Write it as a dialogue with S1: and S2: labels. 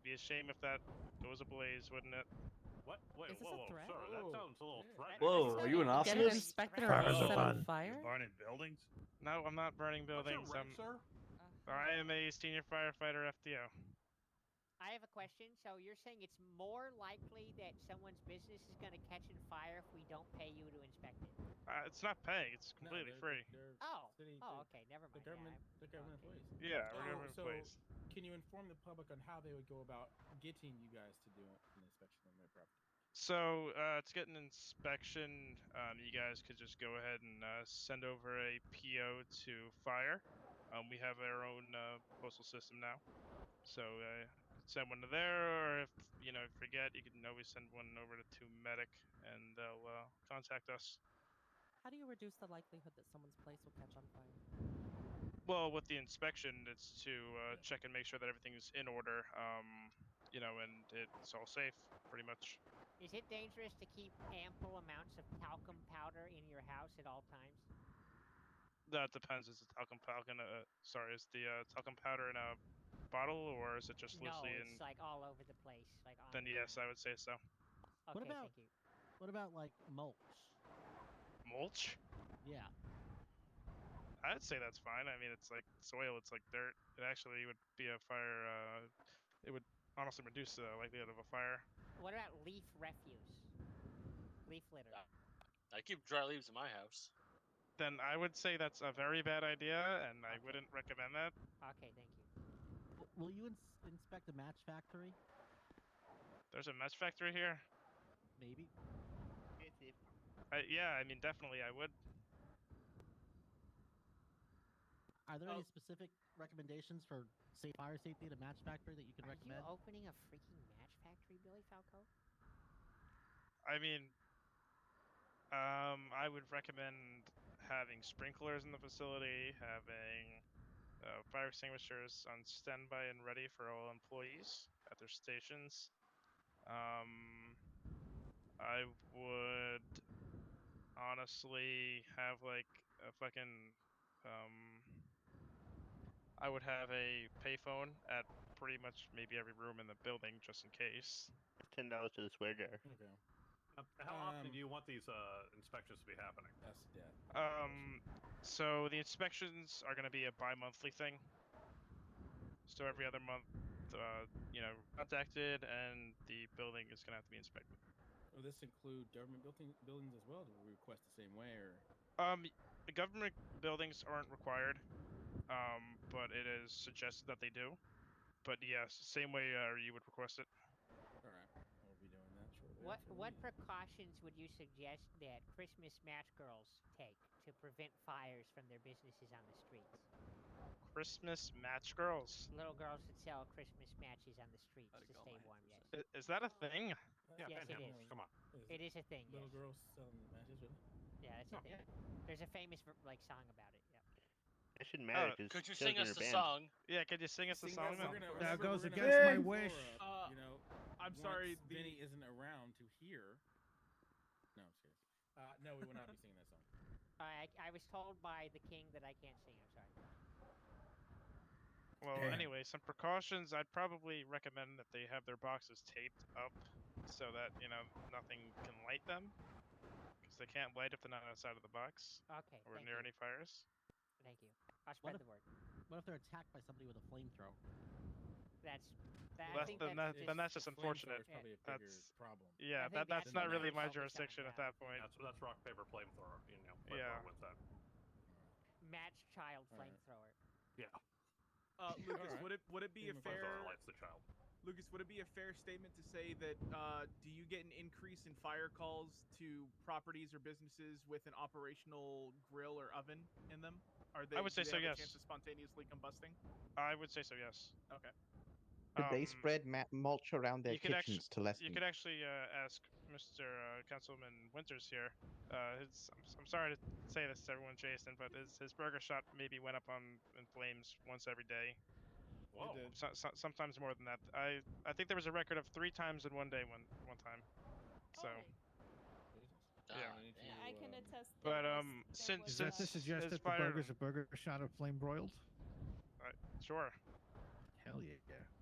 S1: be a shame if that goes ablaze, wouldn't it?
S2: What? Wait,
S3: Is this
S2: whoa,
S3: a
S2: whoa,
S3: threat?
S2: sir, that
S4: Whoa.
S2: sounds a little threatening.
S5: Whoa, are you an
S3: Get an
S5: arsonist?
S3: inspector
S6: Fires
S3: and
S6: are
S3: set
S6: fun.
S3: on fire?
S6: Burning buildings?
S1: No, I'm not burning
S2: What's your
S1: buildings.
S2: rank,
S1: I'm,
S2: sir?
S1: I am a senior firefighter FDO.
S7: I have a question. So you're saying it's more likely that someone's business is going to catch on fire if we don't pay you to inspect it?
S1: Uh, it's not pay. It's completely free.
S7: Oh.
S4: City,
S7: Oh, okay. Never mind.
S4: The government,
S7: Yeah,
S4: the government employees.
S1: Yeah,
S4: Oh,
S1: we're government
S4: so-
S1: employees.
S4: Can you inform the public on how they would go about getting you guys to do an inspection on their property?
S1: So uh, to get an inspection, um, you guys could just go ahead and uh, send over a PO to fire. Um, we have our own uh, postal system now, so uh, send one to there, or if you know forget, you can always send one over to, to medic, and they'll uh, contact us.
S3: How do you reduce the likelihood that someone's place will catch on fire?
S1: Well, with the inspection, it's to uh,
S4: Yeah.
S1: check and make sure that everything's in order, um, you know, and it's all safe, pretty much.
S7: okay. Is it dangerous to keep ample amounts of talcum powder in your house at all times?
S1: That depends. Is the talcum powder? Uh, sorry, is the uh, talcum powder in a bottle, or is it just
S7: no,
S1: loosely in?
S7: it's like all over the place. Like on
S1: Then
S7: the
S1: yes, I
S7: ground.
S1: would say so.
S8: What
S7: Okay,
S8: about-
S7: thank you.
S8: What about like mulch?
S1: Mulch?
S8: Yeah.
S1: I'd say that's fine. I mean, it's like soil. It's like dirt. It actually would be a fire. Uh, it would honestly reduce the likelihood of a fire.
S7: What about leaf refuse? Leaf litter.
S9: Uh, I keep dry leaves in my house.
S1: Then I would say that's a very bad idea, and I wouldn't recommend that.
S7: Okay, thank you.
S8: W- Will you ins- inspect a match factory?
S1: There's a match factory here.
S8: Maybe.
S1: I, yeah, I mean, definitely, I would.
S8: Are there
S9: Oh.
S8: any specific recommendations for safe fire safety at a match factory that you can
S7: Are
S8: recommend?
S7: you opening a freaking match factory, Billy Falco?
S1: I mean, um, I would recommend having sprinklers in the facility, having uh, fire extinguishers on standby and ready for all employees at their stations. Um, I would honestly have like a fucking. Um, I would have a payphone at pretty much maybe every room in the building just in case.
S10: Ten dollars to the square jar.
S4: Okay,
S2: Uh, How often
S4: Um,
S2: do you want these uh, inspections to be happening?
S4: that's that.
S1: Um, so the inspections are going to be a bi-monthly thing. So every other month, uh, you know, contacted, and the building is going to have to be inspected.
S4: Will this include government building, buildings as well? Do we request the same way, or
S1: Um, the government buildings aren't required, um, but it is suggested that they do. But yes, same way uh, you would request it.
S4: all right? We'll be doing that shortly.
S7: What
S4: after the
S7: what
S4: meeting.
S7: precautions would you suggest that Christmas match girls take to prevent fires from their businesses on the streets?
S1: Christmas match girls.
S7: Little girls that sell Christmas matches on the streets
S6: Gotta
S7: to
S6: go,
S7: stay
S6: my
S7: warm. Yes,
S6: hands
S1: I- Is that a thing?
S2: Yeah,
S7: Yes, it
S2: Panhandlers,
S7: is.
S2: come on.
S4: Is
S7: it is a thing.
S4: Little
S7: yes.
S4: girls selling matches, really?
S7: Yeah, that's a thing. There's a famous ver- like song about it. Yeah.
S10: That shouldn't matter.
S1: Uh,
S10: because
S9: Could you sing us the
S10: band.
S9: song?
S1: Yeah, could you sing us a
S4: Sing
S1: song?
S4: that
S1: now?
S4: song for us.
S6: That
S4: Remember,
S6: goes
S4: we're gonna
S6: against
S4: have
S6: my
S4: to
S6: wish.
S4: follow
S5: Uh,
S4: up, you know,
S5: I'm sorry.
S4: once
S5: The,
S4: Vinny isn't around to hear. No, I'm just kidding. Uh, no, we will not be singing that song.
S7: I I was told by the king that I can't sing. I'm sorry.
S1: Well,
S6: Damn.
S1: anyway, some precautions. I'd probably recommend that they have their boxes taped up so that, you know, nothing can light them. Because they can't light if they're not outside of the box
S7: Okay.
S1: or
S7: thank
S1: near
S7: you.
S1: any fires.
S7: Thank you. I'll spread
S8: if-
S7: the word.
S8: What if they're attacked by somebody with a flamethrower?
S7: That's that. I
S1: Less
S7: think
S1: than that-
S7: that's just,
S1: then that's just
S4: The flamethrower
S1: unfortunate.
S4: is probably a bigger
S1: That's- Uh,
S4: problem.
S1: Yeah,
S7: think
S1: that,
S7: that's
S1: that's
S4: the
S1: not
S4: main
S1: really my
S7: focus on
S1: jurisdiction at
S7: that.
S1: that point.
S2: That's, that's rock, paper, flamethrower. You know,
S1: Yeah.
S2: flamethrower wins that.
S7: match child
S4: All right.
S7: flamethrower.
S2: Yeah.
S6: uh, Lucas,
S4: Alright.
S6: would it would it be a
S4: Give him a
S2: Flamethrower
S6: fair
S2: lights the child.
S6: Lucas? Would it be a fair statement to say that uh, do you get an increase in fire calls to properties or businesses with an operational grill or oven in them? Are they?
S1: would
S6: do
S1: say
S6: they
S1: so,
S6: have
S1: yes.
S6: A chance of spontaneously combusting.
S1: I would say so, yes.
S6: Okay.
S10: Could they
S1: Um,
S10: spread ma- mulch around their
S1: you could
S10: kitchens
S1: actu-
S10: to lessen?
S1: You could actually uh, ask Mr. Uh, Councilman Winters here. Uh, his, I'm, s- I'm sorry to say this to everyone, Jason, but his, his burger shop maybe went up on in flames once every day.
S2: Whoa.
S4: did.
S1: Oh, so, so, sometimes more than that. I I think there was a record of three times in one day one one time. So,
S3: Oh
S1: Yeah.
S9: Oh,
S4: Yeah,
S9: man.
S4: I can
S3: attest.
S1: but um, since
S6: Is that to
S1: since
S6: suggest
S1: since
S6: that the
S1: fire-
S6: burger's a burger shot of flame broiled?
S1: sure.
S6: Hell yeah.